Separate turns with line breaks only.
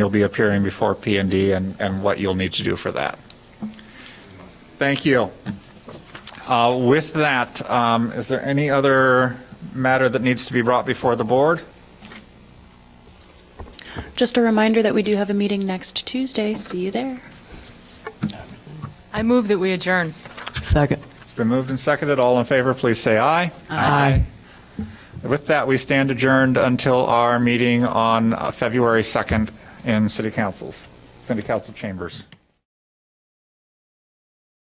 You'll be appearing before P and D and what you'll need to do for that. Thank you. Uh, With that, um, is there any other matter that needs to be brought before the board?
Just a reminder that we do have a meeting next Tuesday. See you there.
I move that we adjourn.
Second.
It's been moved and seconded. All in favor, please say aye.
Aye.
With that, we stand adjourned until our meeting on uh, February 2nd in City Councils, City Council Chambers.